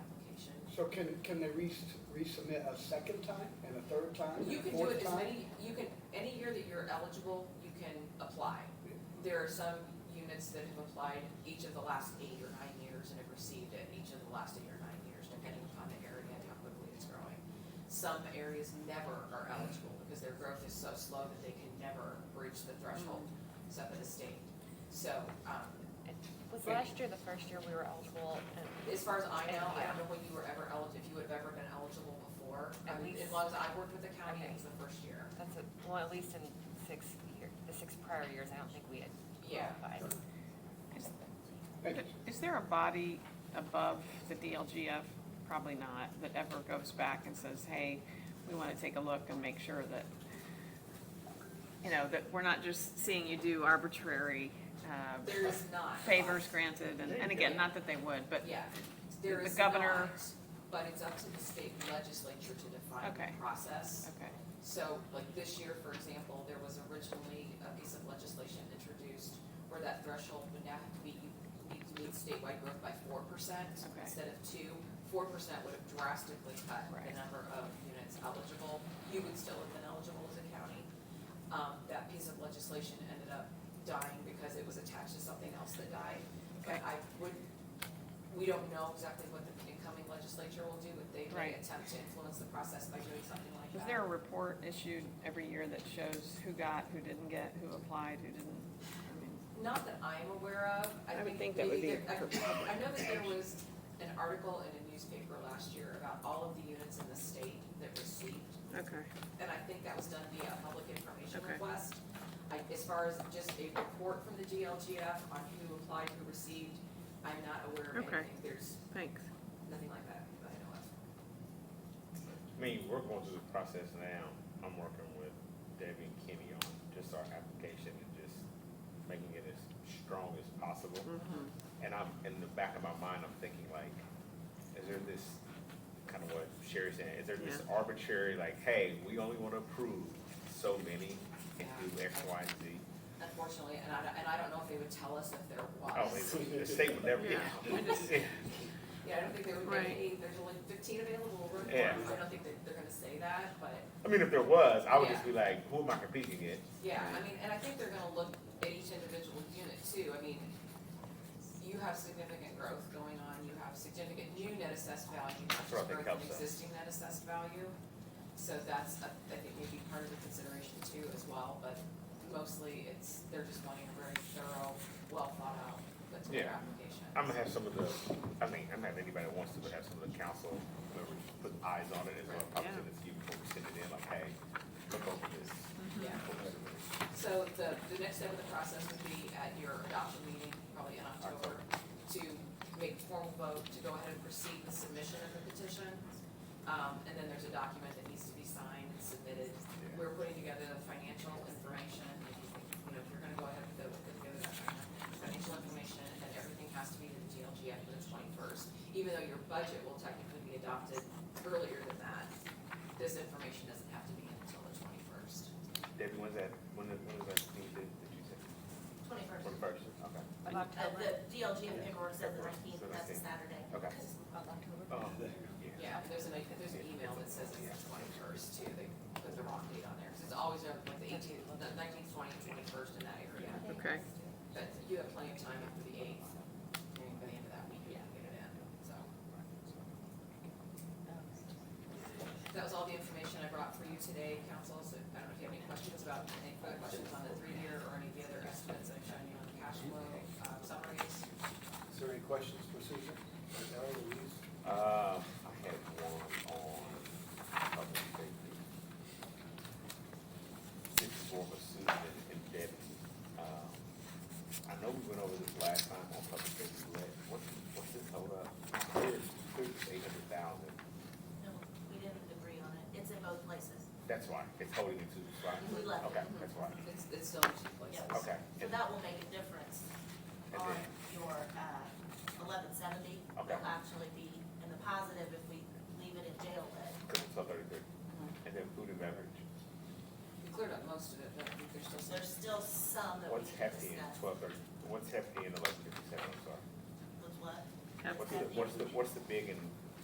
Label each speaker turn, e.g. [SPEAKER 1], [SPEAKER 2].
[SPEAKER 1] So can, can they res- resubmit a second time and a third time and
[SPEAKER 2] You
[SPEAKER 1] a
[SPEAKER 2] can do
[SPEAKER 1] fourth
[SPEAKER 2] it as
[SPEAKER 1] time?
[SPEAKER 2] many, you can, any year that you're eligible, you can apply. There are some units that have applied each of the last eight or nine years and have received it each of the last eight or nine years, depending upon the area and how quickly it's growing. Some areas never are eligible because their growth is so slow that they can never reach the threshold
[SPEAKER 3] Mm-hmm.
[SPEAKER 2] set by the state. So, um,
[SPEAKER 3] Was last year the first year we were eligible and,
[SPEAKER 2] as far as I know, I don't know when you were ever eligible, if you have ever been eligible before. I
[SPEAKER 3] At
[SPEAKER 2] mean,
[SPEAKER 3] least-
[SPEAKER 2] As long as I've worked with the county, it
[SPEAKER 3] Okay.
[SPEAKER 2] was the first year.
[SPEAKER 3] that's, a- well, at least in six year, the six prior years, I don't think we had
[SPEAKER 2] Yeah.
[SPEAKER 3] qualified.
[SPEAKER 1] Thank you.
[SPEAKER 4] Is there a body above the DLGF? Probably not, that ever goes back and says, hey, we want to take a look and make sure that, you know, that we're not just seeing you do arbitrary uh,
[SPEAKER 2] There is not.
[SPEAKER 4] favors granted, and, and again, not that they would, but,
[SPEAKER 2] Yeah, there
[SPEAKER 4] The
[SPEAKER 2] is not,
[SPEAKER 4] governor-
[SPEAKER 2] but it's up to the state legislature to define
[SPEAKER 4] Okay.
[SPEAKER 2] the process.
[SPEAKER 4] okay.
[SPEAKER 2] So like this year, for example, there was originally a piece of legislation introduced where that threshold would now have to be, you need to meet statewide growth by four percent
[SPEAKER 4] Okay.
[SPEAKER 2] instead of two. Four percent would have drastically cut the
[SPEAKER 4] Right.
[SPEAKER 2] number of units eligible. You would still have been eligible as a county. Um, that piece of legislation ended up dying because it was attached to something else that died. But
[SPEAKER 4] Okay.
[SPEAKER 2] I would, we don't know exactly what the incoming legislature will do, but they may
[SPEAKER 4] Right.
[SPEAKER 2] attempt to influence the process by doing something like that.
[SPEAKER 4] Is there a report issued every year that shows who got, who didn't get, who applied, who didn't? I mean,
[SPEAKER 2] Not that I'm aware of.
[SPEAKER 4] I would think that would
[SPEAKER 2] maybe
[SPEAKER 4] be
[SPEAKER 2] there- I I know that there was an article in a newspaper last year about all of the units in the state that received,
[SPEAKER 4] Okay,
[SPEAKER 2] and I think that was done via a public information
[SPEAKER 4] Okay.
[SPEAKER 2] request. I, as far as just a report from the DLGF on who applied, who received, I'm not aware of
[SPEAKER 4] Okay.
[SPEAKER 2] anything. There's
[SPEAKER 4] thanks.
[SPEAKER 2] nothing like that that I know of.
[SPEAKER 5] I mean, we're going through the process now. I'm working with Debbie and Kenny on just our application and just making it as strong as possible.
[SPEAKER 4] Mm-hmm.
[SPEAKER 5] And I'm, in the back of my mind, I'm thinking like, is there this, kind of what Sherry's saying, is there this arbitrary, like, hey, we only want to approve so many and do X, Y, and Z?
[SPEAKER 2] Unfortunately, and I, don't- and I don't know if they would tell us if there was.
[SPEAKER 5] Oh, they- the state would never, yeah.
[SPEAKER 2] Yeah, I don't think they would make
[SPEAKER 4] Right.
[SPEAKER 2] any, there's only fifteen available room for
[SPEAKER 5] Yeah.
[SPEAKER 2] them, so I don't think that they're gonna say that, but,
[SPEAKER 5] I mean, if there was, I would just be like, who am I competing against?
[SPEAKER 2] yeah, I mean, and I think they're gonna look at each individual unit too, I mean, you have significant growth going on, you have significant new net assessed value, not
[SPEAKER 5] That's
[SPEAKER 2] just
[SPEAKER 5] what I think
[SPEAKER 2] growth in
[SPEAKER 5] helps us.
[SPEAKER 2] existing net assessed value. So that's, I I think maybe part of the consideration too as well, but mostly it's, they're just wanting a very thorough, well thought out, that's their
[SPEAKER 5] Yeah.
[SPEAKER 2] application.
[SPEAKER 5] I'm gonna have some of the, I mean, I'm gonna have anybody that wants to, but have some of the council members put eyes on it as well, probably to
[SPEAKER 4] Yeah.
[SPEAKER 5] this you before we send it in, like, hey, look over this.
[SPEAKER 2] Yeah.
[SPEAKER 5] look over this.
[SPEAKER 2] So the, the next step of the process would be at your adoption meeting, probably in October, to make formal vote to go ahead and proceed with submission of the petition. Um, and then there's a document that needs to be signed and submitted. We're putting together the financial information, if you think, you know, if you're gonna go ahead with it, we'll put together that kind of financial information, and then everything has to be to the DLG after the twenty-first. Even though your budget will technically be adopted earlier than that, this information doesn't have to be in until the twenty-first.
[SPEAKER 5] Debbie, when's that, when, is- when is that thing that, that you said,
[SPEAKER 6] Twenty-first.
[SPEAKER 5] twenty-first, okay.
[SPEAKER 3] Of
[SPEAKER 6] Uh,
[SPEAKER 3] October.
[SPEAKER 6] the DLGF paperwork says the nineteenth,
[SPEAKER 5] October.
[SPEAKER 6] that's a Saturday.
[SPEAKER 5] Okay.
[SPEAKER 6] Because it's of October.
[SPEAKER 5] Oh,
[SPEAKER 2] Yeah, if there's an, if there's an email that says it's the twenty-first too, they put the wrong date on there, because it's always uh, like the eighteenth, the nineteenth, twentieth, twenty-first in that area.
[SPEAKER 4] Okay.
[SPEAKER 2] But you have plenty of time after the eighth, and by the end of that week, you can get it in, so. That was all the information I brought for you today, council, so I don't know if you have any questions about, any further questions on the three-year or any of the other estimates I've shown you on the cash flow, uh, summaries.
[SPEAKER 7] Is there any questions for Susan? Or Darrell, Louise?
[SPEAKER 5] Uh, I had one on public safety. This is for both Susan and Debbie. Um, I know we went over this last time on public safety, but what's, what's this hold up? Here's, here's eight hundred thousand.
[SPEAKER 6] No, we didn't agree on it. It's in both places.
[SPEAKER 5] That's why, it's holding it to the spot.
[SPEAKER 6] We left it.
[SPEAKER 5] Okay, that's why.
[SPEAKER 2] It's, it's still in two places.
[SPEAKER 6] Yeah.
[SPEAKER 5] Okay.
[SPEAKER 6] So
[SPEAKER 5] And-
[SPEAKER 6] that will make a difference
[SPEAKER 5] And
[SPEAKER 6] on
[SPEAKER 5] then-
[SPEAKER 6] your, uh, eleven seventy.
[SPEAKER 5] Okay.
[SPEAKER 6] It'll actually be in the positive if we leave it in jail lit.
[SPEAKER 5] Cause it's thirty-three. And then food and beverage.
[SPEAKER 2] We cleared up most of it, but I think there's still some.
[SPEAKER 6] There's still some that we
[SPEAKER 5] What's
[SPEAKER 6] can
[SPEAKER 5] hefty in
[SPEAKER 6] discuss.
[SPEAKER 5] twelve thirty, what's hefty in eleven fifty-seven, I'm sorry?
[SPEAKER 6] With what?
[SPEAKER 5] What's the, what's the, what's the big and